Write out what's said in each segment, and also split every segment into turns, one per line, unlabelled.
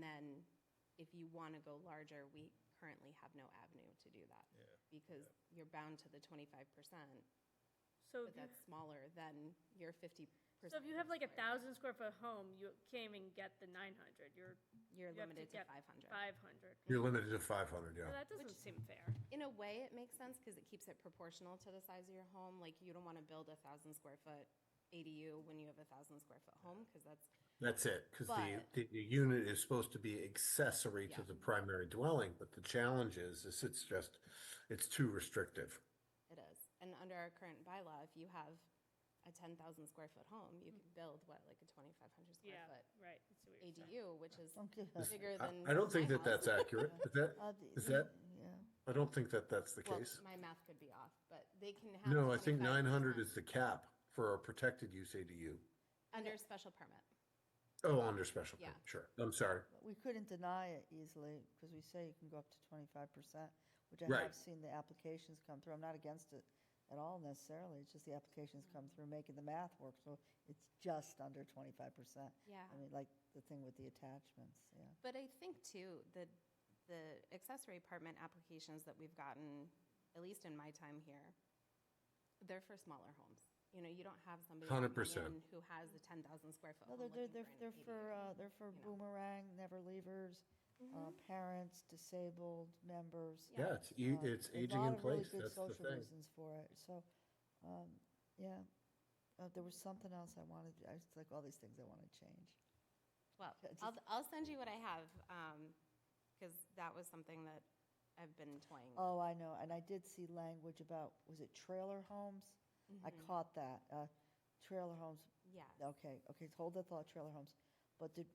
then if you want to go larger, we currently have no avenue to do that.
Yeah,
Because you're bound to the twenty-five percent,
So
but
if you,
that's smaller than your fifty percent.
so if you have like a thousand square foot home, you can't even get the nine hundred, you're.
You're
you have
limited to
get
five hundred.
500.
You're limited to 500,
Well,
yeah.
that doesn't seem fair.
In a way, it makes sense because it keeps it proportional to the size of your home. Like you don't want to build a thousand square foot ADU when you have a thousand square foot home because that's,
That's it, because the,
But-
the the unit is supposed to be accessory
Yeah.
to the primary dwelling, but the challenge is, is it's just, it's too restrictive.
it is. And under our current bylaw, if you have a ten thousand square foot home, you can build what, like a twenty-five hundred
Mm. Yeah,
square
right. that's what
foot
you're saying.
ADU, which is
Funky
bigger
I
than.
I don't think
my
that that's
house.
accurate, is that,
house.
is that,
Uh, Yeah.
I don't think that that's the
Well,
case.
my math could be off, but they can have.
No, I think
25%
900 is the cap for a protected use ADU.
Under special permit.
Oh, under special
Yeah.
permit, sure, I'm sorry.
But We couldn't deny it easily because we say you can go up to twenty-five percent, which I
Right.
have seen the applications come through. I'm not against it at all necessarily. It's just the applications
Mm-hmm.
come through, making the math work. So it's just under twenty-five percent.
Yeah.
I mean, like the thing with the attachments, yeah.
But I think too, the, the accessory apartment applications that we've gotten, at least in my time here, they're for smaller homes. You know, you don't have somebody. coming
100%.
in Who has a ten thousand square foot
No,
home
they're, they're,
looking
they're
for
they're
an
for,
ADU.
uh, they're for
you know.
boomerang, never leavers,
Mm-hmm.
uh, parents, disabled members.
Yeah.
Yeah, it's, e-
Uh,
it's
there's a
aging
lot
in
of really
place,
good
that's the
social
thing.
reasons for it, so, um, yeah. Uh, There was something else I wanted, I was like, all these things I want to change.
Well,
Just-
I'll, I'll send you what I have, um, because that was something that I've been toying with.
Oh, I know, and I did see language about, was it trailer homes? I
Mm-hmm.
caught that, uh, trailer homes,
Yeah.
okay, okay, hold that thought, trailer homes. But did,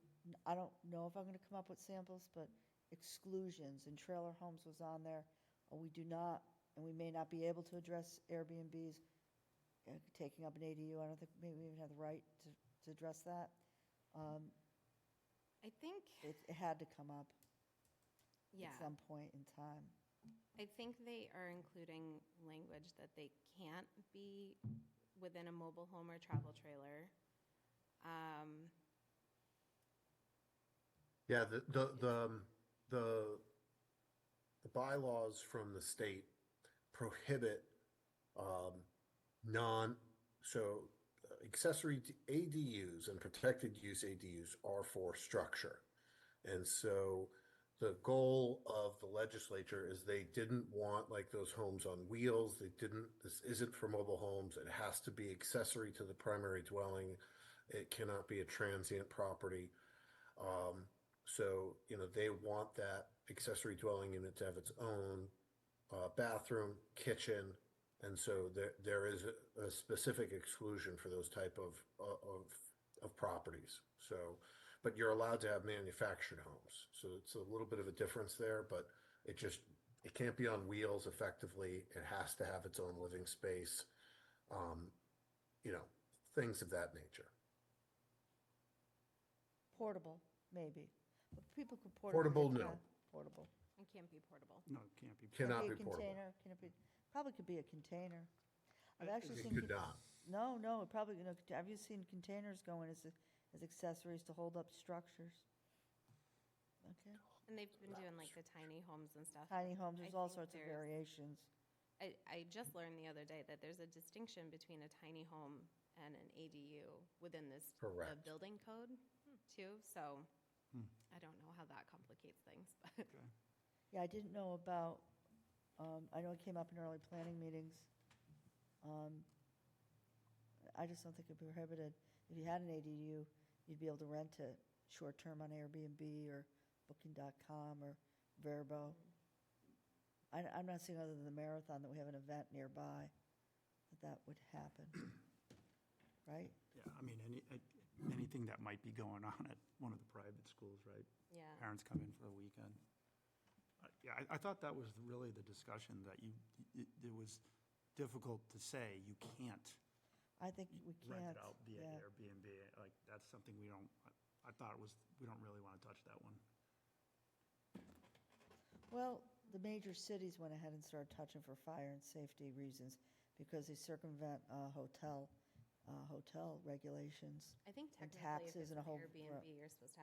I don't know if I'm going to come up with samples, but exclusions, and trailer homes was on there. Uh, We do not, and we may not be able to address Airbnbs uh, taking up an ADU. I don't think, maybe we even have the right to, to address that. Um,
I think,
It, it had to come up
yeah.
at some point in time.
I think they are including language that they can't be within a mobile home or travel trailer. Um,
Yeah, the, the, the, um, the, the bylaws from the state prohibit, um, non, so uh, accessory t- ADUs and protected use ADUs are for structure. And so the goal of the legislature is they didn't want like those homes on wheels. They didn't, this isn't for mobile homes. It has to be accessory to the primary dwelling. It cannot be a transient property. Um, So, you know, they want that accessory dwelling unit to have its own uh, bathroom, kitchen. And so there, there is a, a specific exclusion for those type of, uh, of, of properties. So, but you're allowed to have manufactured homes. So it's a little bit of a difference there, but it just, it can't be on wheels effectively. It has to have its own living space. Um, you know, things of that nature.
Portable, maybe. But people could
Portable,
portable.
no.
Portable.
it can't be portable.
No, it can't be.
Cannot
Could
be
a
portable.
container, Can it be, probably could be a container. I've
I-
It
actually seen.
could
con-
not.
No, no, it probably, you know, have you seen containers going as, as accessories to hold up structures? Okay,
And they've been doing like the tiny homes and stuff.
tiny homes,
I
there's all
think
sorts of
there's-
variations.
I, I just learned the other day that there's a distinction between a tiny home and an ADU within this, the
Correct.
building code
Hmm.
too, so I don't know how that complicates things, but
Okay.
Yeah, I didn't know about, um, I know it came up in early planning meetings. Um, I just don't think it prohibited. If you had an ADU, you'd be able to rent it short-term on Airbnb or Booking.com or Verbo. I, I'm not seeing other than the marathon that we have an event nearby, that that would happen, right?
Yeah, I mean, any, I- anything that might be going on at one of the private schools, right?
Yeah.
Parents come in for the weekend. Uh, Yeah, I, I thought that was really the discussion, that you, it, it was difficult to say, you can't
I think we
rent
can't.
it out via
yeah.
Airbnb. Like, that's something we don't, I- I thought it was, we don't really want to touch that one.
Well, the major cities went ahead and started touching for fire and safety reasons because they circumvent uh, hotel, uh, hotel regulations.
I think
And
technically if
taxes
it's
and a
an
whole-
Airbnb, you're supposed to